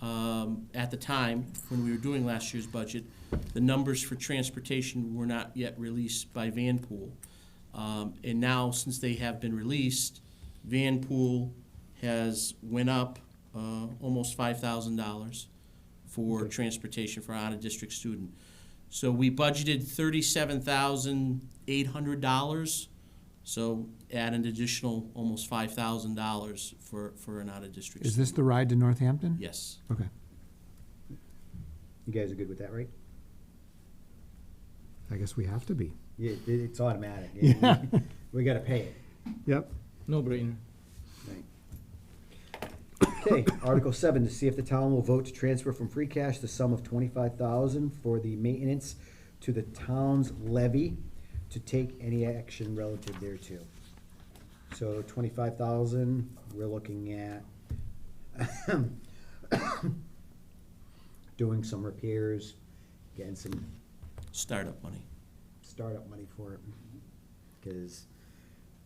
um, at the time, when we were doing last year's budget, the numbers for transportation were not yet released by Vanpool. Um, and now, since they have been released, Vanpool has went up, uh, almost five thousand dollars for transportation for out-of-district student. So we budgeted thirty-seven thousand eight hundred dollars, so add an additional almost five thousand dollars for, for an out-of-district. Is this student. the ride to Northampton? Yes. Okay. You guys are good with that, right? I guess we have to be. Yeah, it- it's automatic. Yeah. we- We gotta pay it. Yep. No brainer. Right. Okay, Article seven, to see if the town will vote to transfer from free cash the sum of twenty-five thousand for the maintenance to the town's levy to take any action relative thereto. So twenty-five thousand, we're looking at doing some repairs, getting some Startup money. startup money for it, because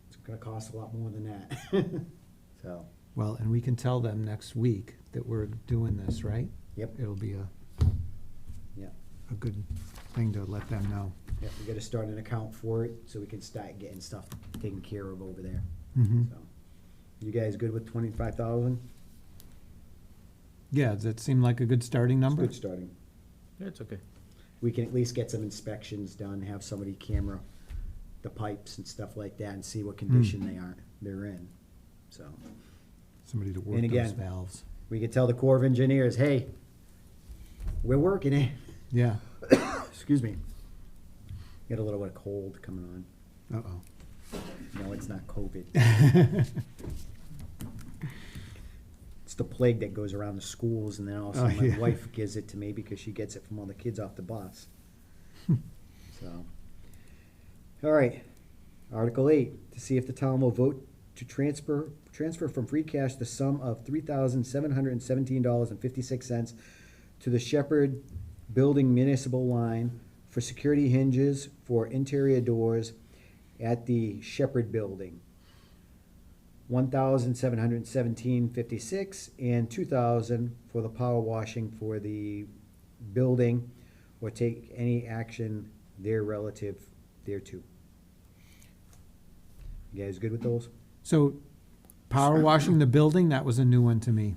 it's gonna cost a lot more than that. So, Well, and we can tell them next week that we're doing this, right? yep, It'll be a, yep. a good thing to let them know. Yeah, we gotta start an account for it, so we can start getting stuff taken care of over there, Mhm. so. You guys good with twenty-five thousand? Yeah, does that seem like a good starting number? Good starting. That's okay. We can at least get some inspections done, have somebody camera the pipes and stuff like that, and see what condition they are, they're in, so. Somebody to work And those again- valves. We could tell the Corps of Engineers, hey, we're working it, Yeah. excuse me. Got a little bit of cold coming on, Uh-oh. no, it's not COVID. it's the plague that goes around the schools, and then all of a Oh, sudden my yeah. wife gives it to me because she gets it from all the kids off the bus. so, all right, Article Eight: To see if the town will vote to transfer transfer from free cash the sum of three thousand seven hundred and seventeen dollars and fifty six cents to the Shepherd Building Municipal Line for security hinges for interior doors at the Shepherd Building. 1,717.56 and 2,000 for the power washing for the building or take any action there relative thereto. You guys good with those? So power washing the building, that was a new one to me.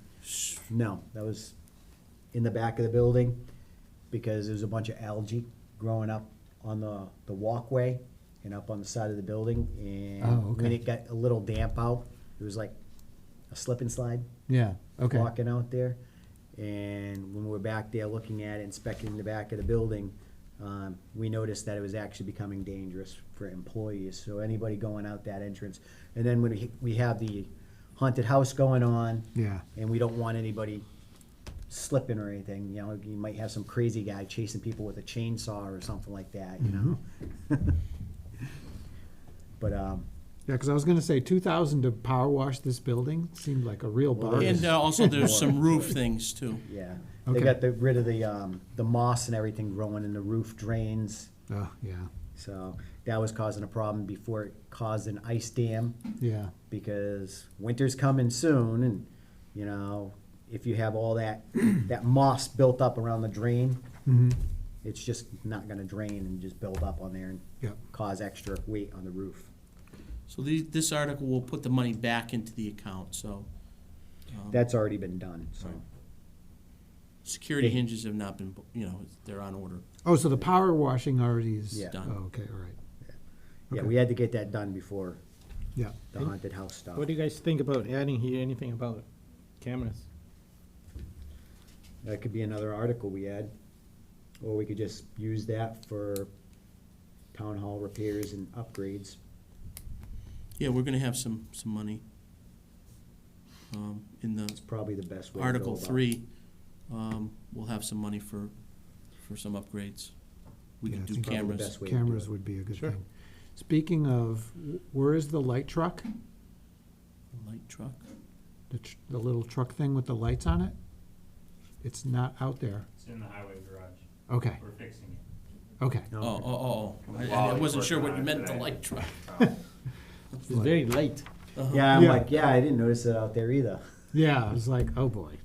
No, that was in the back of the building because there's a bunch of algae growing up on the, the walkway and up on the side of the building. Oh, And okay. when it got a little damp out, it was like a slip and slide. Yeah, okay. walking out there. And when we were back there looking at, it, inspecting the back of the building, um, we noticed that it was actually becoming dangerous for employees. So anybody going out that entrance, and then when we, we have the haunted house going on, Yeah. and we don't want anybody slipping or anything, you know, you might have some crazy guy chasing people with a chainsaw or something like that, you know? But, um, Yeah, because I was going to say 2,000 to power wash this building seemed like a real Well, bargain. And uh, also, there's some roof things too. yeah, Okay. they got the, rid of the, um, the moss and everything growing in the roof drains. Oh, yeah, So that was causing a problem before it caused an ice dam yeah, because winter's coming soon and you know if you have all that that moss built up around the drain Mm-hmm. it's just not going to drain and just build up on there and Yep. cause extra weight on the roof So these, this article will put the money back into the account, so. um, that's already been done so Right. Security Yeah. hinges have not been, bu- you know, they're on order. Oh, so the power washing already is. Yeah. Done. Oh, okay, all right. yeah Okay. we had to get that done before Yeah. the haunted house stuff What do you guys think about adding here anything about cameras? That could be another article we add, or we could just use that for town hall repairs and upgrades. Yeah, we're gonna have some, some money. Um, in the It's probably the best way. to go Article about it. three, um, we'll have some money for, for some upgrades. We Yeah, can I do think Probably the cameras. best way to do Cameras it. would be a good Sure. thing. Speaking of, wh- where is the light truck? Light truck. The, tr- the little truck thing with the lights on it? It's not out there. It's in the highway garage. Okay, We're fixing it. okay. Oh, No, oh, oh, oh. I- I wasn't sure what you meant, the light truck. It's very light. Uh-huh. Yeah, I'm Yeah. like, yeah, I didn't notice it out there either. Yeah, I was like, oh boy.